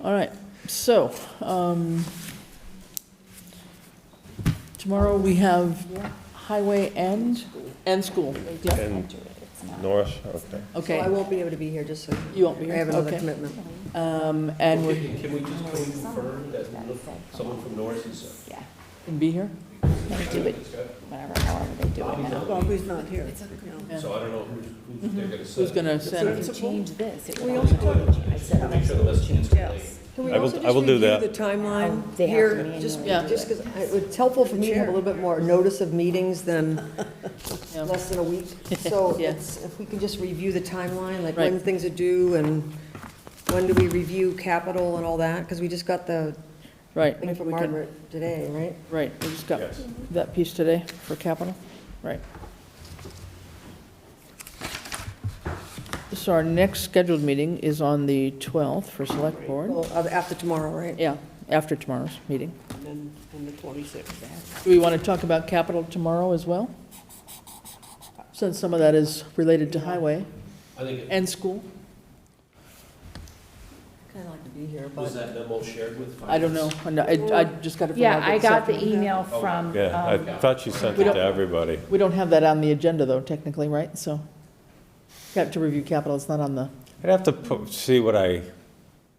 All right, so, um, tomorrow we have highway and, and school. Yeah, And Norris, okay. So I okay, won't be able to be here, just so. you won't be here, I have another okay. commitment. Um, and would Can can we just confirm that we'll look- someone from Norris is? Yeah, be here? they do it, whatever, however they do it now. Well, who's not here? Yeah. So I don't know who's, who's they're gonna send. Who's gonna send? If you change this, it We would also also change. I said, Make sure the list gets yes. complete. Can we I will- also I just will do review that. the timeline Oh, they have to here? manually Just, Yeah. do just because it's helpful for me to have a little bit more notice of meetings than Yeah. less than a week. So Yeah. it's, if we can just review the timeline, like Right. when things are due and when do we review capital and all that? Because we just got the Right, thing maybe from we can, Margaret today, right? right, we just got Yes. that piece today for capital, right. So our next scheduled meeting is on the 12th for select board. Well, uh, after tomorrow, right? Yeah, after tomorrow's meeting. And the 26th. Do we want to talk about capital tomorrow as well? Since some of that is related to highway I think, it- and school? Kind of like to be here, was but that memo shared with? I don't know. I know, I I just got it from Yeah, I Margaret got the Sutton. email Oh, from, Yeah, I um, thought you sent We it don't- to everybody. We don't have that on the agenda, though, technically, right? So, got to review capital, it's not on the. I'd have to pu- see what I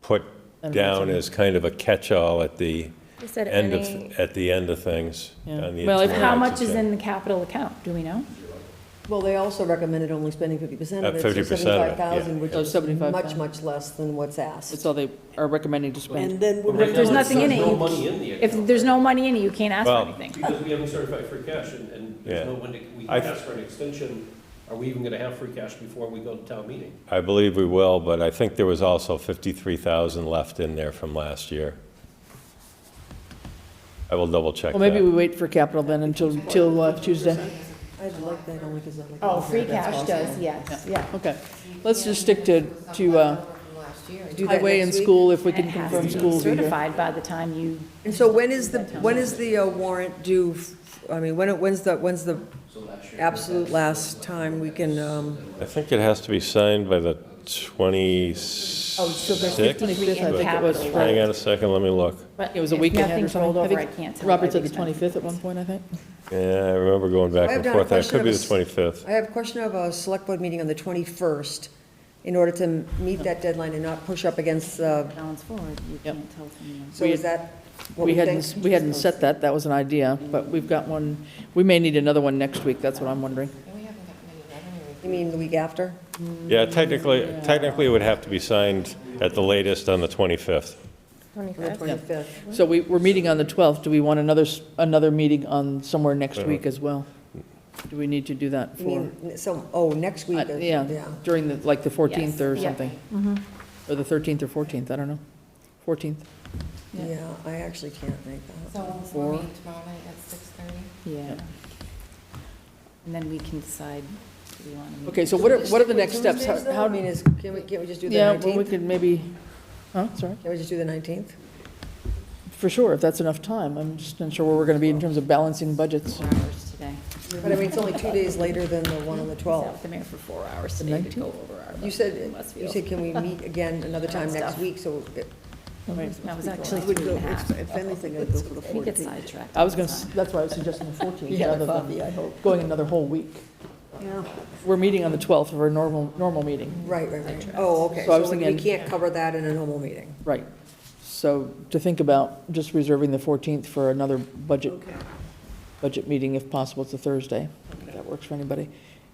put I don't know if it's on down the- as kind of a catch-all at the you said end of, any, at the end of things. Yeah. on the Well, if- tomorrow's how much is agenda. in the capital account, do we know? Well, they also recommended only spending 50% At of it, so 50% of it, yeah. 75,000, which So is 75,000. much, much less than what's It's asked. all they are recommending to spend. then But right If there's now, nothing in it, No you- money in the If account. there's no money in it, you can't ask Well- for anything. Because we haven't certified free cash and, and Yeah. there's no when to, we I- ask for an extension. Are we even gonna have free cash before we go to town meeting? I believe we will, but I think there was also 53,000 left in there from last year. I will double-check Well, maybe we that. wait for capital then until, till uh, Tuesday. I'd like that only because I'm like. Oh, yes, yeah. Okay, let's just stick to, to uh, Do that highway and next week. school if we It can has confirm to be school will be here. certified by the time you, And so when is the, when is the uh, warrant due? f- I mean, when, it- when's the, when's the absolute last time we can, um, I think it has to be signed by the Oh, 26th. Oh, so there's 53 in I think it was capital, for- right? Hang on a second, let me look. but It was a if week ahead or nothing's something. rolled I over, think I can't tell. Robert by said the the expense. 25th at one point, I think. Yeah, I remember going back I have and down a forth, and it question could of be a the s- 25th. I have a question of a select board meeting on the 21st. In order to meet that deadline and not push up against, uh, Balance forward, you Yep. can't tell from the- so is that what We we hadn't, think? we hadn't set that, that was an idea, but we've got one, we may need another one next week, that's what I'm wondering. You mean the week after? Yeah, technically, technically, it would have to be signed at the latest on the 25th. On the 25th. So we, we're meeting on the 12th, do we want another, s- another meeting on somewhere next week as well? Do we need to do that You for, mean, so, oh, next uh, week? is- yeah, during the, like the 14th or Yes, yeah. something? Or the 13th or 14th, I don't know, 14th, Yeah. Yeah, I actually can't make that. So we'll- Four. we'll meet tomorrow night at six thirty? Yeah. And then we can decide, do we want to meet? okay, so what are, what are the next steps? How- How, I mean, is, can we, can't we just do the Yeah, well, we 19th? could maybe, huh, sorry, Can we just do the 19th? for sure, if that's enough time, I'm just not sure where we're gonna be in terms of balancing budgets. Four hours today. But I mean, it's only two days later than the one on the 12th. Sat with The mayor for four hours The today to go over our. You budget said, in you Westfield. said, can we meet again another time next Stuff. week, so it- Right. That was actually three and a half. If anything, I'd go for the 14th. We get sidetracked. I was gonna, s- that's why I was suggesting the 14th, rather than going another whole week. We're meeting on the 12th of our normal, normal meeting, right, right, right. Oh, okay, So I was so we thinking- can't cover that in a normal meeting. right. So to think about just reserving the 14th for another budget, budget meeting if possible, it's a Thursday, if that works for anybody.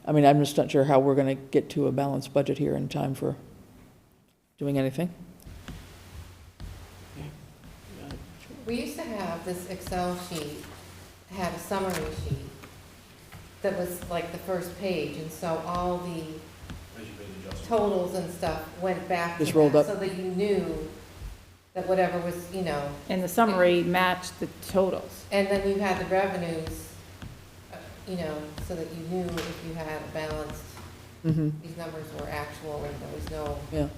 I mean, I'm just not sure how we're gonna get to a balanced budget here in time for doing anything. We used to have this Excel sheet, had a summary sheet that was like the first page, and so all the totals and stuff went back to Just rolled that, up. So that you knew that whatever was, you know, And the summary matched the totals. and then you had the revenues, uh, you know, so that you knew if you had a balanced, Mm-hmm, these numbers were actual and there was no, yeah. if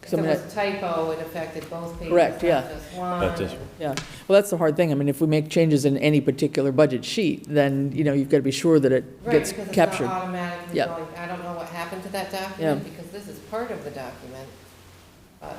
'Cause I there mean, I- was a typo, it affected both pages, Correct, not yeah. just one. Not just- and- Yeah, well, that's the hard thing. I mean, if we make changes in any particular budget sheet, then, you know, you've got to be sure that it Right, gets because it's not captured. automatically Yeah. going, I don't know what happened to that document, because this is part of the document. But